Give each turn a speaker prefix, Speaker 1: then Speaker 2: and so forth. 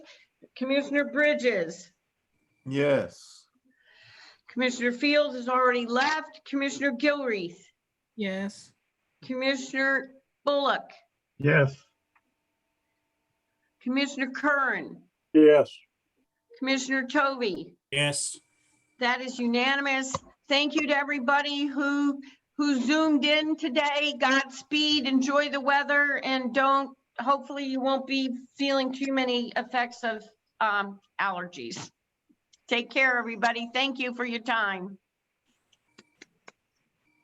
Speaker 1: Commissioner Bridges,
Speaker 2: Yes.
Speaker 1: Commissioner Fields has already left, Commissioner Gilreath,
Speaker 3: Yes.
Speaker 1: Commissioner Bullock,
Speaker 4: Yes.
Speaker 1: Commissioner Curran,
Speaker 4: Yes.
Speaker 1: Commissioner Tovey.
Speaker 5: Yes.
Speaker 1: That is unanimous. Thank you to everybody who, who zoomed in today. Godspeed, enjoy the weather and don't, hopefully you won't be feeling too many effects of um, allergies. Take care, everybody. Thank you for your time.